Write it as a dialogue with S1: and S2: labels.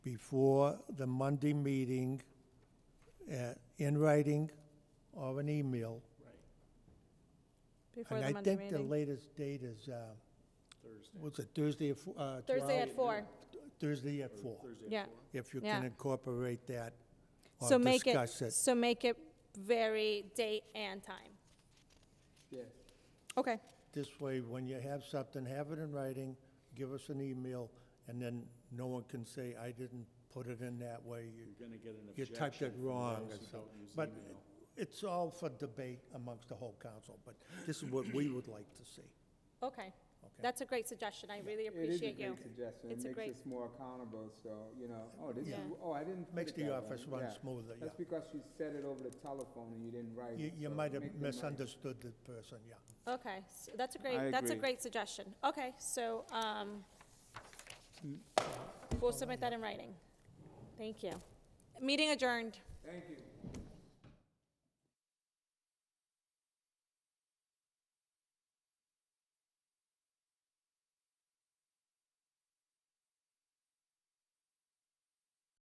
S1: before the Monday meeting uh, in writing or an email.
S2: Before
S1: And
S2: the
S1: I
S2: Monday
S1: think the
S2: meeting.
S1: latest date is, uh, what's it, Thursday at fo- uh, 12?
S2: Thursday at four,
S1: Thursday at four,
S2: yeah.
S1: if you
S2: Yeah.
S1: can incorporate that
S2: So
S1: or
S2: make it,
S1: discuss it.
S2: so make it very date and time.
S3: Yeah.
S2: Okay,
S1: This way, when you have something, have it in writing, give us an email, and then no one can say, I didn't put it in that way. You-
S3: You're gonna get an
S1: You
S3: objection.
S1: typed it
S3: from
S1: wrong
S3: those
S1: or
S3: who
S1: something.
S3: don't use
S1: But
S3: email.
S1: it's all for debate amongst the whole council, but this is what we would like to see,
S2: okay.
S1: okay?
S2: That's a great suggestion. I really appreciate you.
S4: It is a great suggestion.
S2: It's a
S4: It
S2: great-
S4: makes us more accountable, so, you know, oh, this is,
S2: Yeah.
S4: oh, I didn't. put
S1: Makes
S4: it
S1: the
S4: that
S1: office
S4: way."
S1: run
S4: Yeah.
S1: smoother, yeah.
S4: That's because you said it over the telephone and you didn't write
S1: You,
S4: it.
S1: you
S4: so
S1: might have
S4: make them write it.
S1: misunderstood the person, yeah.
S2: Okay, so that's a
S3: I
S2: great, that's a
S3: agree.
S2: great suggestion. Okay, so, um, we'll submit that in writing. Thank you. Meeting adjourned.
S4: Thank you.